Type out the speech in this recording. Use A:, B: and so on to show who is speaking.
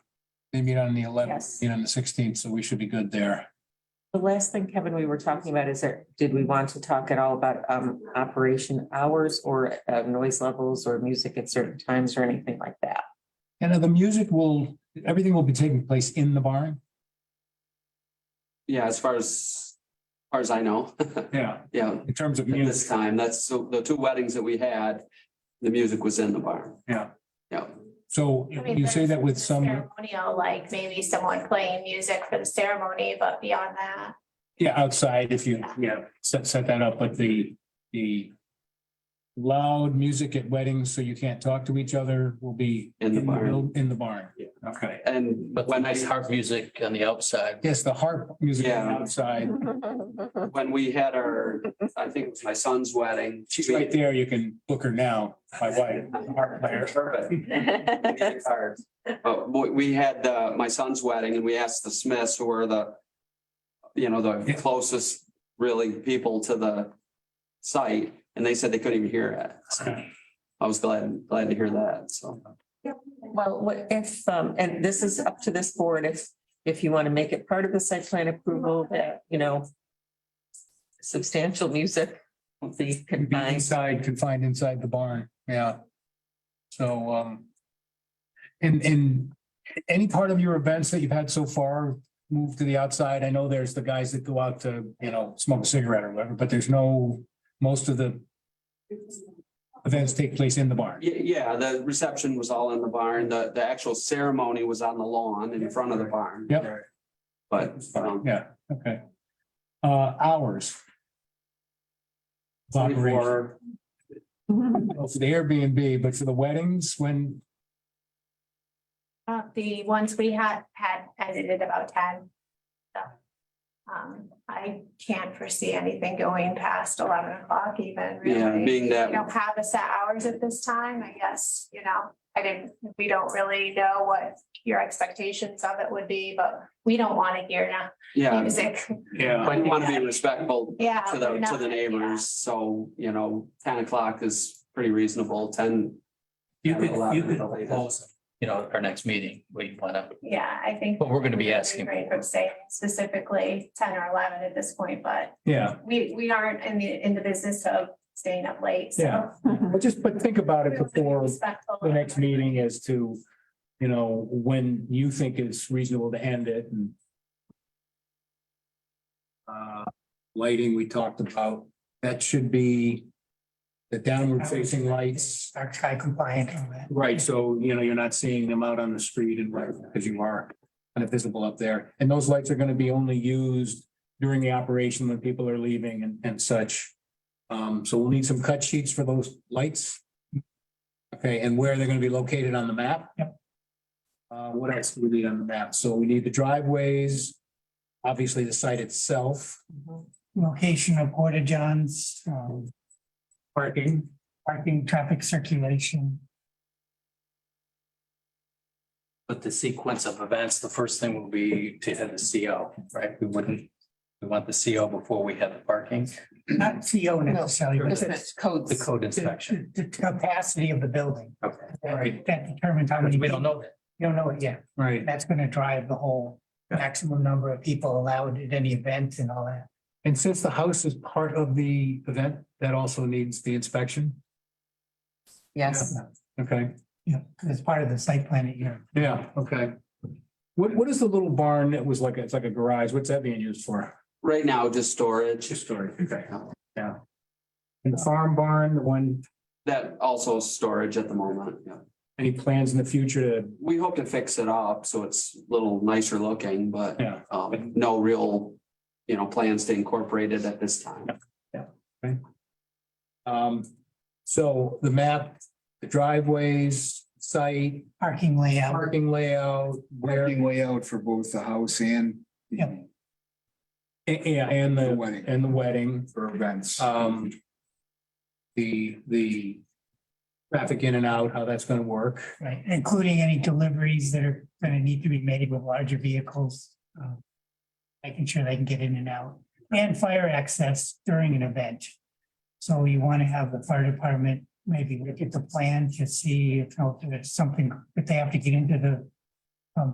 A: They meet on the eleventh,
B: Yes.
A: meet on the sixteenth, so we should be good there.
B: The last thing, Kevin, we were talking about is that, did we want to talk at all about um operation hours or uh noise levels or music at certain times or anything like that?
A: And uh, the music will, everything will be taking place in the barn?
C: Yeah, as far as, as far as I know,
A: Yeah.
C: yeah,
A: In terms of
C: at this
A: music,
C: time, that's, so the two weddings that we had, the music was in the barn.
A: Yeah.
C: Yeah,
A: so
D: I mean,
A: you say
D: there's
A: that with some,
D: Ceremonial, like maybe someone playing music for the ceremony, but beyond that,
A: yeah, outside if you, yeah, set, set that up, but the, the loud music at weddings, so you can't talk to each other, will be
C: In the barn.
A: buil- In the barn.
C: Yeah.
A: Okay.
C: and
E: But the
C: when I,
E: nice harp music on the outside.
A: Yes, the harp music
C: Yeah.
A: outside.
C: when we had our, I think it was my son's wedding.
A: She's right there. You can book her now, my wife, harp player.
C: Perfect. Music cards. But we, we had, uh, my son's wedding and we asked the Smiths who were the, you know, the
A: Yeah.
C: closest really people to the site, and they said they couldn't even hear it. So I was glad, glad to hear that, so.
B: Well, what if um, and this is up to this board, if if you want to make it part of the site plan approval that, you know. Substantial music will be
A: It'd Be
B: combined.
A: inside, confined inside the barn. Yeah. So, um, and, and any part of your events that you've had so far move to the outside? I know there's the guys that go out to, you know, smoke a cigarette or whatever, but there's no, most of the events take place in the barn.
C: Yeah, yeah, the reception was all in the barn. The, the actual ceremony was on the lawn in front of the barn.
A: Yep.
C: But, um,
A: Yeah, okay. Uh, hours. of Operation.
C: before,
A: Well, for the Airbnb, but for the weddings, when,
D: uh, the ones we had, had edited about ten. So, um, I can't foresee anything going past eleven o'clock even,
C: yeah,
D: really.
C: being
D: We don't
C: that,
D: have a set hours at this time, I guess, you know, I didn't, we don't really know what your expectations of it would be, but we don't want to hear now
C: yeah,
D: music.
A: yeah,
C: I want to be respectful
D: Yeah.
C: to the,
D: we're
C: to the
D: not-
C: neighbors, so, you know, ten o'clock is pretty reasonable, ten.
E: You could, you
C: 11
E: could
C: at the latest.
E: propose, you know, our next meeting, we want to,
D: Yeah, I think.
E: But we're gonna be asking.
D: Right, from saying specifically ten or eleven at this point, but
A: yeah,
D: we, we aren't in the, in the business of staying up late, so.
A: Yeah. but just, but think about
D: we
A: it
D: want to be
A: before
D: respectful.
A: the next meeting as to, you know, when you think it's reasonable to end it and uh, lighting we talked about, that should be the downward facing lights.
F: Are tri compliant on that.
A: Right, so, you know, you're not seeing them out on the street and right, because you are kind of visible up there. And those lights are gonna be only used during the operation when people are leaving and, and such. Um, so we'll need some cut sheets for those lights. Okay, and where they're gonna be located on the map? Yep. Uh, what else do we need on the map? So we need the driveways, obviously the site itself,
F: Location of Porta Johns, um,
A: parking.
F: parking, traffic circulation.
E: but the sequence of events, the first thing will be to have the CO, right? We wouldn't, we want the CO before we have the parking,
F: Not CO necessarily, but
E: Isn't
F: the,
E: it the
B: Codes.
E: code inspection.
F: the the capacity of the building.
E: Okay.
F: That-
A: Right.
F: That determines how many.
E: We don't know that.
F: You don't know it yet.
A: Right.
F: That's gonna drive the whole maximum number of people allowed at any event and all that.
A: And since the house is part of the event, that also needs the inspection.
B: Yes.
A: Okay.
F: You know, 'cause it's part of the site plan that you're.
A: Yeah, okay. What, what is the little barn that was like, it's like a garage, what's that being used for?
C: right now, just storage.
A: Just storage, okay. Yeah. And the farm barn, the one,
C: That also is storage at the moment, yeah.
A: any plans in the future to,
C: We hope to fix it up, so it's a little nicer looking, but,
A: yeah,
C: um, no real, you know, plans to incorporate it at this time.
A: um, so the map, the driveways, site,
F: Parking layout,
A: parking layout, where,
G: Parking layout for both the house and the
F: Yep.
A: yeah, and
G: the
A: the,
G: wedding
A: and the wedding,
G: for events.
A: um, the, the traffic in and out, how that's gonna work.
F: right, including any deliveries that are gonna need to be made with larger vehicles. um, Making sure they can get in and out and fire access during an event. So you want to have the fire department maybe look at the plan to see if you know, if there's something, if they have to get into the